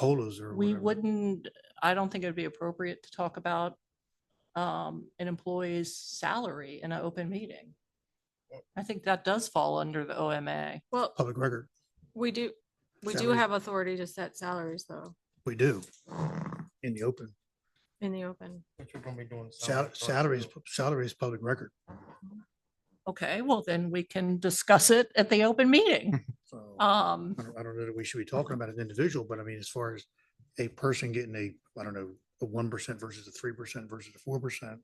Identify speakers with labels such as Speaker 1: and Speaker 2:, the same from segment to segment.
Speaker 1: colas or
Speaker 2: We
Speaker 1: whatever.
Speaker 2: wouldn't, I don't think it'd be appropriate to talk about um, an employee's salary in an open meeting. I think that does fall under the OMA.
Speaker 3: Well,
Speaker 1: Public record,
Speaker 3: we do, we do
Speaker 1: Salaries.
Speaker 3: have authority to set salaries though,
Speaker 1: we do in the open.
Speaker 3: in the open.
Speaker 4: But you're gonna be doing.
Speaker 1: Sal-
Speaker 4: first,
Speaker 1: Salary is,
Speaker 4: so-
Speaker 1: salary is public record.
Speaker 2: Okay, well, then we can discuss it at the open meeting.
Speaker 1: So I
Speaker 2: Um,
Speaker 1: don't I don't know that we should be talking about an individual, but I mean, as far as a person getting a, I don't know, a one percent versus a three percent versus a four percent.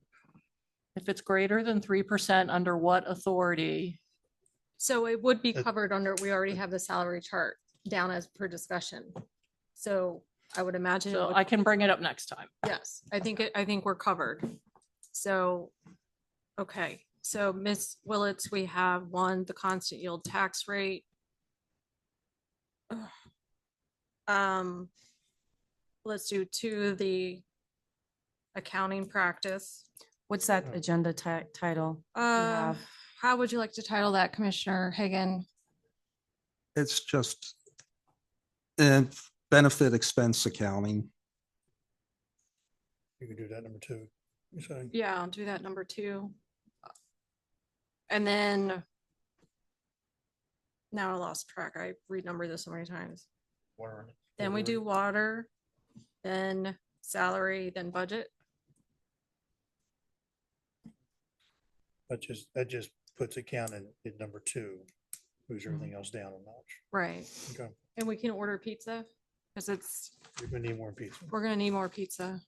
Speaker 2: if it's greater than three percent, under what authority?
Speaker 3: So it would be
Speaker 1: Uh,
Speaker 3: covered under, we already have the salary chart down as per discussion. So I would imagine, it
Speaker 2: So
Speaker 3: would-
Speaker 2: I can bring it up next time.
Speaker 3: yes, I think, it- I think we're covered. So, okay, so Miss Willetts, we have one, the constant yield tax rate. Ugh. Um, let's do two, the accounting practice.
Speaker 5: What's that
Speaker 4: Yeah.
Speaker 5: agenda ti- title? you
Speaker 3: Uh,
Speaker 5: have?
Speaker 3: how would you like to title that, Commissioner Hagan?
Speaker 6: It's just and benefit expense accounting.
Speaker 1: You could do that number two. You're saying?
Speaker 3: Yeah, I'll do that number two. And then now I lost track. I renumbered this so many times.
Speaker 4: Whatever.
Speaker 3: Then we
Speaker 4: Whatever.
Speaker 3: do water, then salary, then budget.
Speaker 1: That just, that just puts accounting at number two, moves
Speaker 2: Mm-hmm.
Speaker 1: everything else down a notch.
Speaker 3: Right.
Speaker 1: Okay,
Speaker 3: And we can order pizza because it's,
Speaker 1: you're gonna need more pizza.
Speaker 3: we're gonna need more pizza,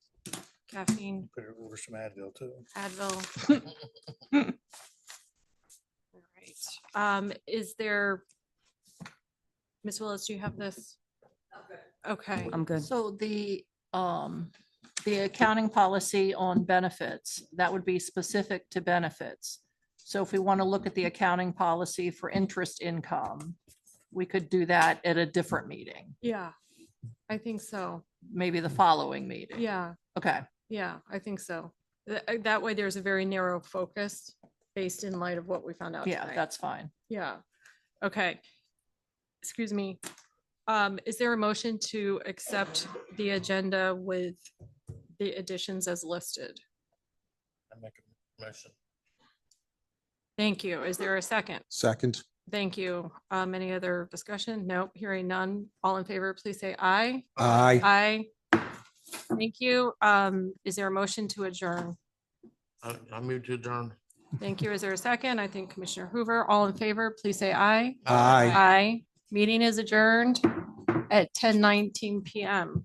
Speaker 3: caffeine,
Speaker 1: Put it over some Advil too.
Speaker 3: Advil. All right. Um, is there, Ms. Willis, do you have this? Okay.
Speaker 5: I'm good.
Speaker 2: So the, um, the accounting policy on benefits, that would be specific to benefits. So if we want to look at the accounting policy for interest income, we could do that at a different meeting,
Speaker 3: Yeah, I think so.
Speaker 2: maybe the following meeting.
Speaker 3: Yeah,
Speaker 2: Okay,
Speaker 3: yeah, I think so. Th- uh, That way there's a very narrow focus based in light of what we found out.
Speaker 2: yeah,
Speaker 3: tonight.
Speaker 2: that's fine.
Speaker 3: Yeah, okay. Excuse me. Um, is there a motion to accept the agenda with the additions as listed?
Speaker 4: I make a motion.
Speaker 3: Thank you. Is there a second?
Speaker 6: Second,
Speaker 3: Thank you. Um, any other discussion? Nope, hearing none. All in favor, please say aye.
Speaker 6: aye.
Speaker 3: Aye. Thank you. Um, is there a motion to adjourn?
Speaker 4: I, I moved to adjourn.
Speaker 3: Thank you. Is there a second? I think Commissioner Hoover, all in favor, please say aye.
Speaker 6: Aye.
Speaker 3: Aye. Meeting is adjourned at ten nineteen PM.